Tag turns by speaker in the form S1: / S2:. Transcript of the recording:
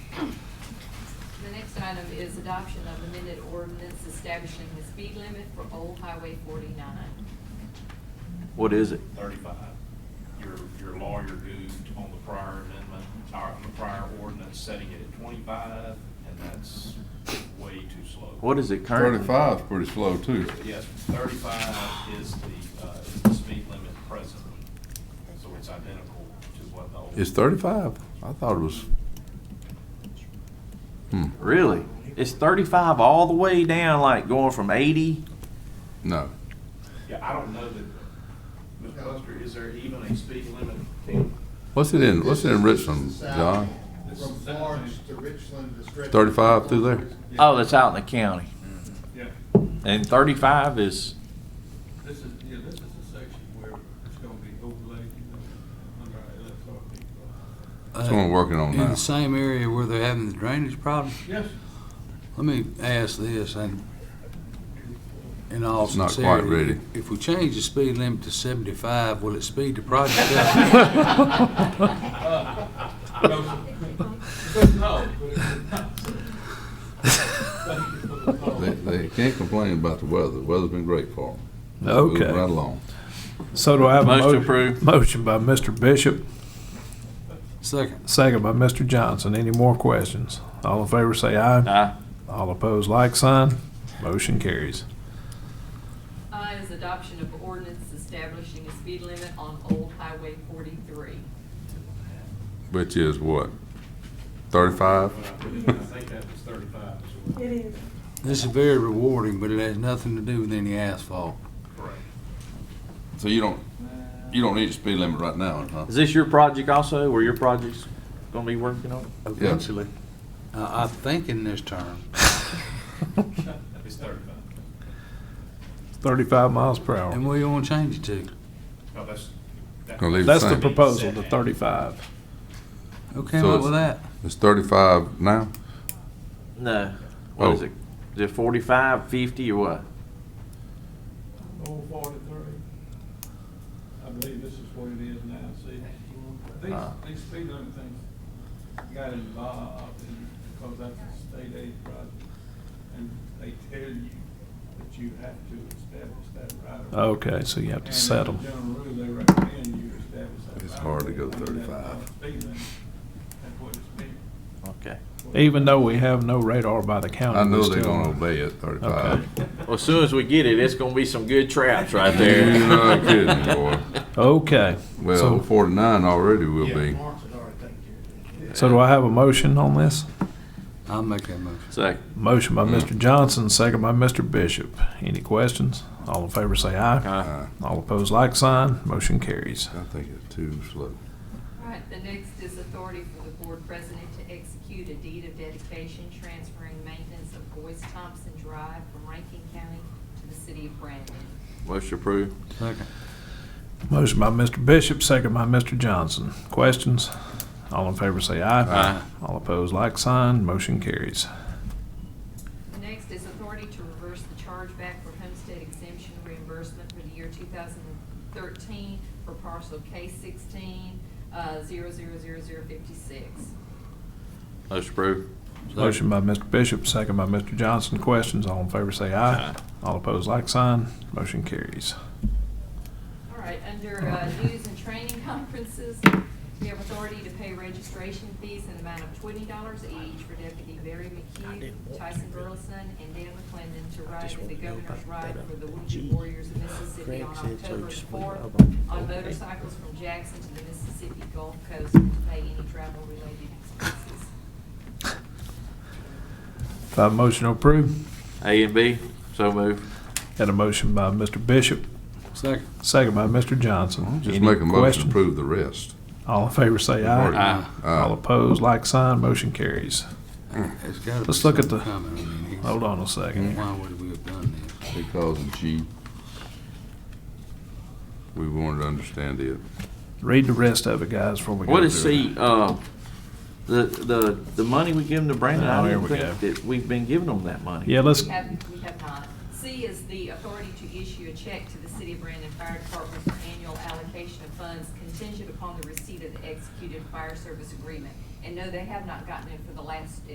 S1: next item is adoption of amended ordinance establishing the speed limit for Old Highway forty-nine.
S2: What is it?
S3: thirty-five. Your, your lawyer goofed on the prior amendment, or on the prior ordinance, setting it at twenty-five, and that's way too slow.
S2: What is it currently?
S4: Thirty-five's pretty slow too.
S3: Yes, thirty-five is the, uh, is the speed limit presently, so it's identical to what the old.
S4: It's thirty-five? I thought it was. Hmm,
S2: Really? It's thirty-five all the way down, like going from eighty?
S4: no.
S3: Yeah, I don't know that, Ms. Buster, is there even a speed limit? Tim?
S4: What's it in, what's it in
S5: This is-
S4: Richland,
S5: this is the
S4: John?
S5: south, From Florence to Richland, the stretch.
S4: 35 through there?
S2: Oh, that's out in the county.
S6: Yeah,
S2: And thirty-five is,
S6: this is, yeah, this is the section where it's gonna be overlaid, you know, under our LSRP.
S4: That's what I'm working on
S7: In
S4: now.
S7: the same area where they're having the drainage problem?
S6: Yes,
S7: Let me ask this, and in all
S4: It's not quite
S7: sincerity.
S4: ready.
S7: If we change the speed limit to seventy-five, will it speed the project up?
S3: Uh,
S6: no, but it's not.
S4: They, they can't complain about the weather. The weather's been great for them. Moving right
S8: Okay.
S4: along.
S8: So do I have a
S2: Motion
S8: mo-
S2: approved.
S8: Motion by Mr. Bishop,
S7: Second,
S8: second by Mr. Johnson. Any more questions? All in favor say aye.
S2: uh,
S8: All opposed, like sign. Motion carries.
S1: I Uh, is adoption of ordinance establishing a speed limit on Old Highway forty-three.
S4: Which is what? Thirty-five?
S3: When I put it in, I think that was thirty-five as well.
S9: It is.
S7: this is very rewarding, but it has nothing to do with any asphalt.
S3: Correct.
S4: So you don't, you don't need a speed limit right now, huh?
S2: is this your project also, or your project's gonna be working on?
S7: Eventually. I, I think in this term.
S3: It's thirty-five.
S8: Thirty-five miles per
S7: And
S8: hour.
S7: what you want to change it to?
S3: No, Oh, that's. that-
S4: Gonna leave it
S8: That's the
S4: same.
S8: proposal, the thirty-five.
S7: Who came
S4: So
S7: up
S4: it's-
S7: with that?
S4: It's thirty-five now?
S2: No. What is
S4: Oh.
S2: it? Is it forty-five, fifty, or what?
S6: Old forty-three. I believe this is what it is now, see?
S8: Uh-huh.
S2: Ah.
S6: These, these speed limit things got involved in, because that's a state aid project. And they tell you that you have to establish that right of way.
S8: Okay, so you have to
S6: And
S8: set them.
S6: as a general rule, they recommend you establish that
S4: It's
S6: right of
S4: hard to
S6: way.
S4: go
S6: I mean, that's
S4: 35.
S6: not speed limit. That's what it's been.
S2: Okay.
S8: Even though we have no radar by the county.
S4: I know
S8: we
S4: they're
S8: still-
S4: gonna obey it, thirty-five.
S2: Well, as soon as we get it, it's gonna be some good traps right there.
S4: You're not kidding, boy.
S8: Okay.
S4: Well,
S8: So,
S4: forty-nine already will be.
S5: Florence had already taken care of it.
S8: so do I have a motion on this?
S7: I'll make that motion.
S2: Second.
S8: Motion by
S4: Mm.
S8: Mr. Johnson, second by Mr. Bishop. Any questions? All in favor say aye.
S2: Uh,
S4: Uh,
S8: All opposed, like sign. Motion carries.
S4: I think it's too slow.
S1: All right, the next is authority for the board president to execute a deed of dedication transferring maintenance of Boyce Thompson Drive from Rankin County to the city of Brandon.
S2: motion approved.
S7: Second.
S8: Motion by Mr. Bishop, second by Mr. Johnson. Questions? All in favor say aye.
S2: Aye.
S8: All opposed, like sign. Motion carries.
S1: The next is authority to reverse the chargeback for homestead exemption reimbursement for the year two thousand and thirteen for parcel K sixteen, uh, zero zero zero zero fifty-six.
S2: Motion approved.
S8: Motion by Mr. Bishop, second by Mr. Johnson. Questions? All in favor say aye. All opposed, like sign. Motion carries.
S1: All right, under uh, news and training conferences, we have authority to pay registration fees in the amount of twenty dollars each for Deputy Barry McHugh, Tyson Burleson, and Dan McClendon to ride in the governor's ride for the Wounded Warriors of Mississippi on October fourth on motorcycles from Jackson to the Mississippi Gulf Coast and to pay any travel-related expenses.
S8: If I have a motion to approve,
S2: A and B, so moved.
S8: had a motion by Mr. Bishop,
S7: Second.
S8: second by Mr. Johnson.
S4: Just
S8: Any
S4: make a motion to
S8: questions?
S4: approve the rest.
S8: All in favor say
S4: Already.
S8: aye.
S2: Aye.
S8: All opposed, like sign. Motion carries.
S7: It's gotta be
S8: Hmm. Let's look at
S7: something
S8: the-
S7: coming. I mean, it's-
S8: Hold on a second.
S7: Why would we have done this?
S4: Because of G. We wanted to understand it.
S8: Read the rest of it, guys, before we go.
S2: What is
S8: through it.
S2: the, uh, the, the, the money we give them to Brandon?
S8: Oh,
S2: I
S8: here
S2: don't
S8: we
S2: think
S8: go.
S2: that we've been giving them that money.
S8: Yeah, let's,
S1: We have, we have not. C is the authority to issue a check to the City of Brandon Fire Department for annual allocation of funds contingent upon the receipt of the executed fire service agreement. And no, they have not gotten it for the last,